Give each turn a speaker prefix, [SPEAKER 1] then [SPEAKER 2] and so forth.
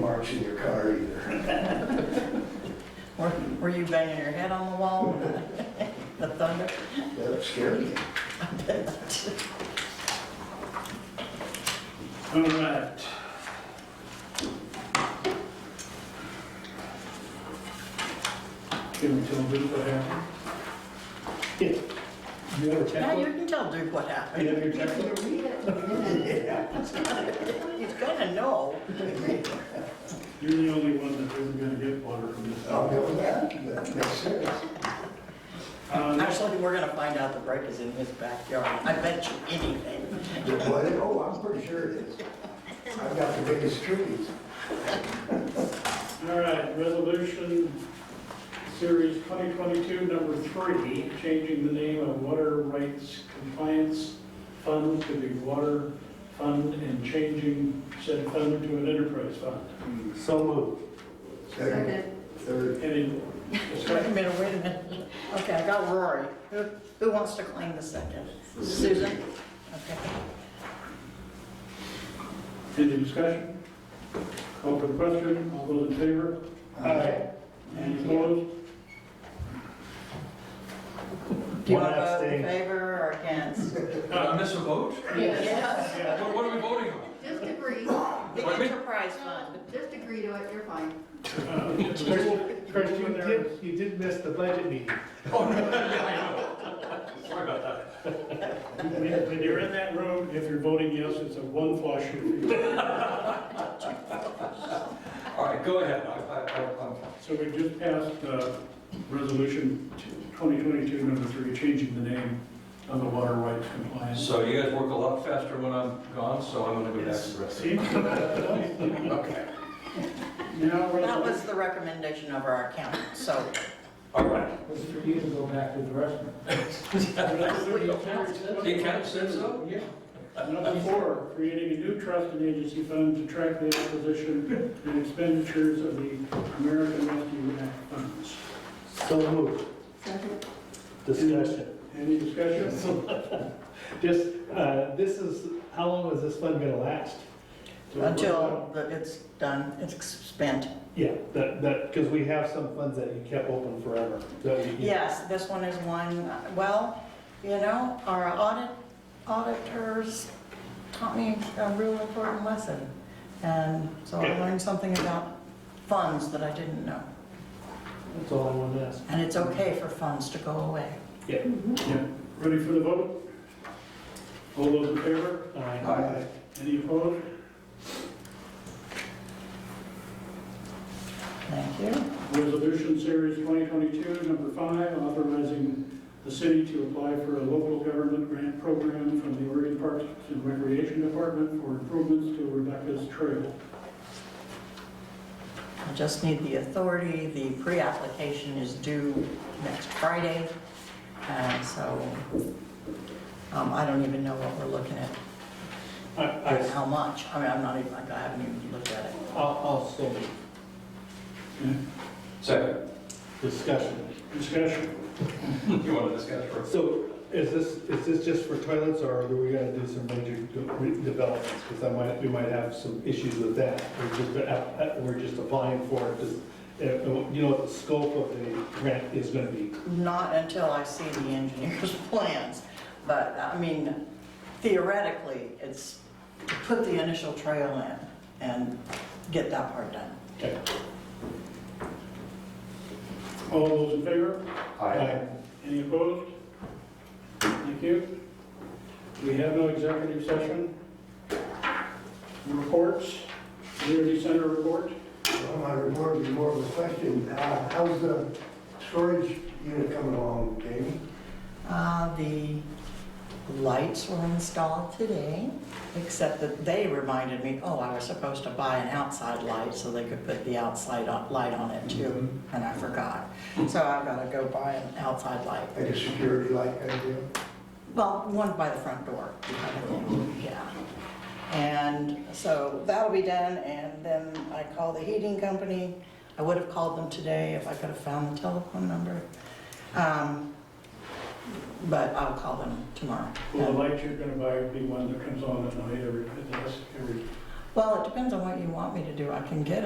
[SPEAKER 1] marks in your car either.
[SPEAKER 2] Were were you banging your head on the wall? The thunder?
[SPEAKER 1] That scared me.
[SPEAKER 3] All right. Give me till we do what happened. Yeah. You have a
[SPEAKER 2] Now you
[SPEAKER 3] template?
[SPEAKER 2] can tell Duke what
[SPEAKER 3] You
[SPEAKER 2] happened.
[SPEAKER 3] have your
[SPEAKER 1] You
[SPEAKER 3] template?
[SPEAKER 1] read it. Yeah.
[SPEAKER 2] He's gonna know.
[SPEAKER 3] You're the only one that isn't gonna get water from this.
[SPEAKER 4] Oh.
[SPEAKER 1] I'll go with that, that makes sense.
[SPEAKER 3] Uh, next-
[SPEAKER 2] Actually, we're gonna find out the break is in his backyard. I bet you anything.
[SPEAKER 1] Did what? Oh, I'm pretty sure it is. I've got the biggest trees.
[SPEAKER 3] All right, resolution series 2022, number three, changing the name of Water Rights Compliance Fund to the Water Fund and changing said fund to an enterprise fund.
[SPEAKER 4] So moved.
[SPEAKER 1] Second, third,
[SPEAKER 3] Any
[SPEAKER 2] Wait a
[SPEAKER 3] discussion?
[SPEAKER 2] minute, wait a minute. Okay, I got Rory. Who, who wants to claim the second? Susan? Okay.
[SPEAKER 3] Any discussion? Call for the question, all those in favor?
[SPEAKER 1] uh, Aye.
[SPEAKER 3] Any opposed?
[SPEAKER 2] Do you
[SPEAKER 4] One
[SPEAKER 2] want to vote in
[SPEAKER 4] abstain.
[SPEAKER 2] favor or against?
[SPEAKER 5] Uh, miss a vote?
[SPEAKER 6] Yes.
[SPEAKER 3] Yeah.
[SPEAKER 5] What what are we voting on?
[SPEAKER 6] Just agree,
[SPEAKER 2] The
[SPEAKER 5] Pardon me?
[SPEAKER 2] enterprise fund.
[SPEAKER 6] just agree to it, you're fine.
[SPEAKER 3] Uh,
[SPEAKER 4] Chris, you
[SPEAKER 3] Christian, there-
[SPEAKER 4] did, you did miss the budget meeting.
[SPEAKER 5] Oh, no, yeah, I know. Sorry about that.
[SPEAKER 3] When when you're in that room, if you're voting yes, it's a one flush.
[SPEAKER 5] All right, go ahead. I, I, I- I'm fine.
[SPEAKER 3] So we just passed uh, Resolution 2022, number three, changing the name of the Water Rights Compliance.
[SPEAKER 5] So you guys work a lot faster when I'm gone, so I'm gonna go back to the rest.
[SPEAKER 3] See? Now,
[SPEAKER 5] Okay.
[SPEAKER 2] That
[SPEAKER 3] resolution-
[SPEAKER 2] was the recommendation of our accountant, so
[SPEAKER 5] All right.
[SPEAKER 7] was for you to go back to the restaurant.
[SPEAKER 5] The accountant said so?
[SPEAKER 4] Oh,
[SPEAKER 7] Yeah.
[SPEAKER 3] Number four, creating a new trust and agency fund to track the acquisition and expenditures of the American Rescue Act funds.
[SPEAKER 4] So moved.
[SPEAKER 6] Second.
[SPEAKER 4] Discussion.
[SPEAKER 3] Any discussion?
[SPEAKER 4] Just, uh, this is, how long is this fund gonna last?
[SPEAKER 2] until the- it's done, it's spent.
[SPEAKER 4] Yeah, that, that, because we have some funds that you kept open forever. that we-
[SPEAKER 2] Yes, this one is one, well, you know, our audit, auditors taught me a real important lesson. And so I
[SPEAKER 4] Okay.
[SPEAKER 2] learned something about funds that I didn't know.
[SPEAKER 4] That's all I wanted to ask.
[SPEAKER 2] And it's okay for funds to go away.
[SPEAKER 4] Yeah.
[SPEAKER 3] Yeah. Ready for the vote? All those in favor?
[SPEAKER 4] All right.
[SPEAKER 1] Aye.
[SPEAKER 3] Any opposed?
[SPEAKER 2] Thank you.
[SPEAKER 3] Resolution Series 2022, number five, authorizing the city to apply for a local government grant program from the Oregon Parks and Recreation Department for improvements to Rebecca's Trail.
[SPEAKER 2] I just need the authority, the pre-application is due next Friday, and so um, I don't even know what we're looking at,
[SPEAKER 4] I, I,
[SPEAKER 2] how much, I mean, I'm not even, I haven't even looked at it.
[SPEAKER 4] I'll, I'll still move.
[SPEAKER 5] Second.
[SPEAKER 4] Discussion.
[SPEAKER 3] Discussion.
[SPEAKER 5] You want to discuss first?
[SPEAKER 4] So is this, is this just for toilets or are we gonna do some major de- developments? Because I might, we might have some issues with that. We're just, uh, uh, we're just applying for it. Does- uh, You know what the scope of the grant is gonna be?
[SPEAKER 2] Not until I see the engineer's plans, but, I mean, theoretically, it's to put the initial trail in and get that part done.
[SPEAKER 4] Okay.
[SPEAKER 3] All those in favor?
[SPEAKER 5] Aye.
[SPEAKER 3] Any opposed? Thank you. We have no executive session. Reports, community center report.
[SPEAKER 1] Well, my report is more of a question. Uh, How's the storage unit coming along, Jamie?
[SPEAKER 2] Uh, The lights were installed today, except that they reminded me, oh, I was supposed to buy an outside light so they could put the outside on- light on it too, and I forgot. So I've got to go buy an outside light.
[SPEAKER 1] Like a security light kind of deal?
[SPEAKER 2] Well, one by the front door, kind of thing, yeah. And so that'll be done, and then I call the heating company. I would have called them today if I could have found the telephone number. Um, But I'll call them tomorrow.
[SPEAKER 3] Will the light you're gonna buy be one that comes on at night every, every
[SPEAKER 2] Well, it depends on what you want me to do. I can get 'em